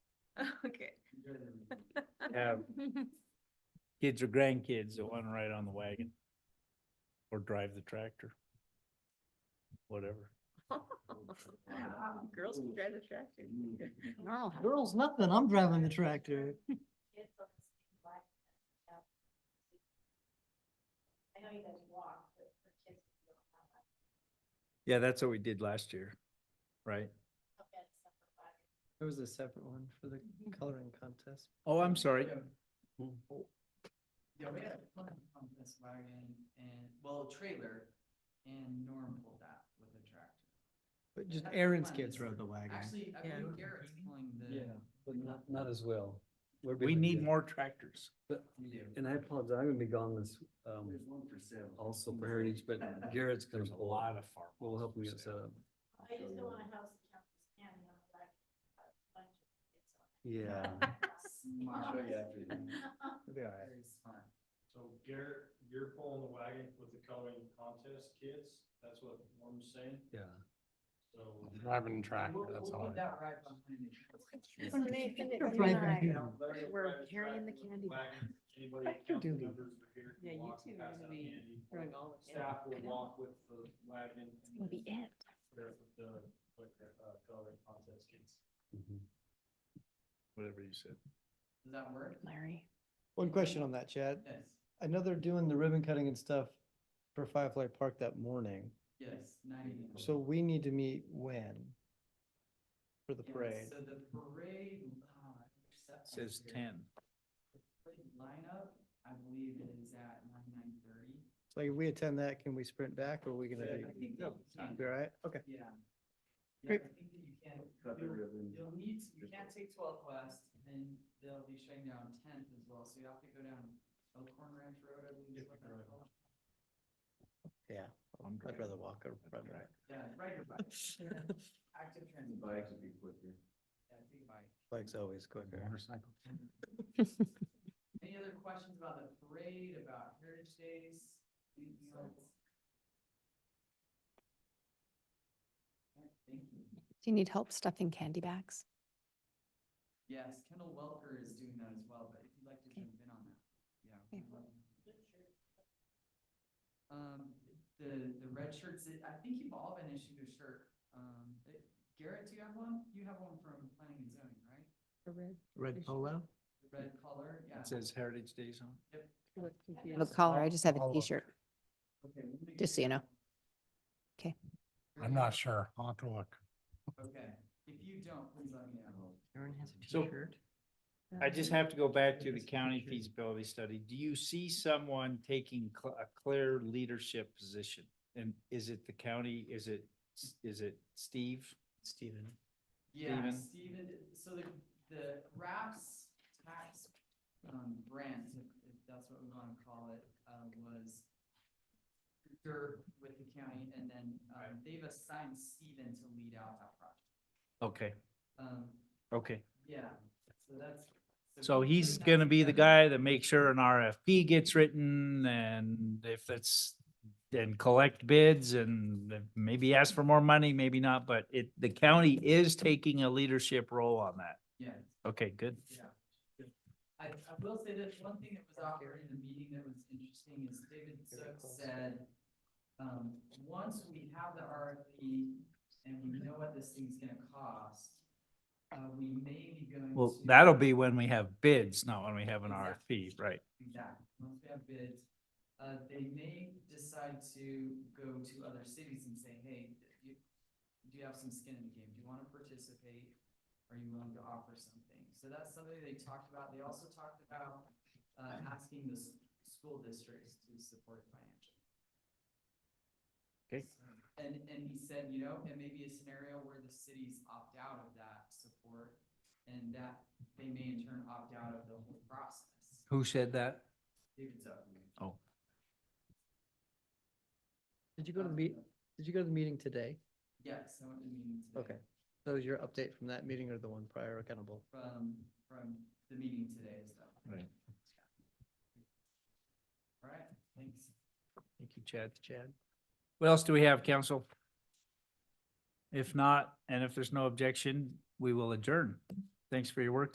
have kids or grandkids that want to ride on the wagon or drive the tractor, whatever. Girls can drive the tractor. Normal. Girls, nothing. I'm driving the tractor. I know you guys walk, but for kids, you don't have that. Yeah, that's what we did last year, right? Okay, it's separate body. There was a separate one for the coloring contest. Oh, I'm sorry. Yeah, we had a plan on this wagon and, well, trailer, and Norm pulled that with a tractor. But just That's the Aaron's plan, kids is- rode the wagon. Actually, I Yeah. believe Garrett's pulling the. Yeah, but not, not as well. We're We gonna need get- more tractors. but- Yeah. And I apologize, I'm gonna be gone this, um, There's one for sale. Oh, also for Heritage, but Garrett's gonna. There's a lot of farm. Will help me me get set up. I just don't want a house that counts as family on the back. a uh, bunch of kids on it. Yeah. Smart. Very smart. So Garrett, you're pulling the wagon with the coloring contest kids, that's what Norm's saying, Yeah. so. Driving track, We'll- that's we'll all. put that right behind it. Nathan, Nathan, You're you right and I- here. Larry, We're drive carrying the tractor with candy. wagon. Anybody, I can do council that. members are here, Yeah, can you walk two and are pass gonna out be candy. Growing all of them. Staff I will know. walk with the wagon. It's gonna be it. There with the, like, uh, coloring contest kids. Mhm. Whatever you said. Does that work? Larry. One question on that, Chad. Yes, I know they're doing the ribbon cutting and stuff for Firefly Park that morning. yes, ninety. So we need to meet when? For the Yeah, parade. So the parade, ah, I wish that was Says here. ten. The parade Lineup, I believe it is at nine, nine thirty. So if we attend that, can we sprint back or are we gonna Yeah, I be, think that we can. be all right? Okay. Yeah. Yeah, I Great. think that you can, Cut the you'll, ribbon. you'll need, to- you can't take twelfth west, and then they'll be shutting down tenth as well, so you have to go down Elkhorn Ranch Road, I believe is what that's called. Yeah, I'd rather walk or run, right? Yeah, ride your bike. Active transit. Bike would be quicker. Yeah, take a bike. Bike's always quicker. Motorcycle. Any other questions about the parade, about Heritage Days? Anything else? Alright, Thank you. Do you need help stuffing candy bags? Yes, Kendall Welker is doing that as well, but if you'd like to jump in on that, yeah. Okay. we'd love to. Um, the, the red shirts, it- I think you've all been issued a shirt. Um, it- Garrett, do you have one? You have one from planning and zoning, right? Red polo? The red color, yeah. It says Heritage Days on. I have a collar. I just have a All over. t-shirt. Okay, we'll make Just so you know. sure. Okay. I'm not sure. I'll have to look. Okay, if you don't, please let me know. Aaron has a So- t-shirt. I just have to go back to the county feasibility study. Do you see someone taking cl- a clear leadership position? And is it the county? Is it, is it Steve? Steven. Yeah, Steven? Steven, so the, the RAPS tax, um, grant, if, if that's what we wanna call it, uh, was dirt with the county, and then, um, they've assigned Steven to lead out that project. Okay, Um, okay. yeah, so that's. So he's putting that gonna be the together. guy that makes sure an RFP gets written and if it's, and collect bids and maybe ask for more money, maybe not, but it, the county is taking a leadership role on that. Yeah. Okay, good. Yeah. I, I will say that one thing that was out there in the meeting that was interesting is David Sook said, um, once we have the RFP and we know what this thing's gonna cost, uh, we may be going to. Well, that'll be when we have bids, not when we have an Exactly. RFP, right? Exactly, once we have bids, uh, they may decide to go to other cities and say, hey, you, do you have some skin in the game? Do you wanna participate? Are you willing to offer something? So that's something they talked about. They also talked about, uh, asking the s- school districts to support financially. Okay. And, and he said, you know, it may be a scenario where the cities opt out of that support and that they may in turn opt out of the whole process. Who said that? David's up. Oh. Did you go to the meet, did you go to the meeting today? Yes, I went to the meeting today. Okay. So was your update from that meeting or the one prior accountable? From, from the meeting today as well. Right. All right, thanks. Thank you, Chad. Chad. What else do we have, council? If not, and if there's no objection, we will adjourn. Thanks for your work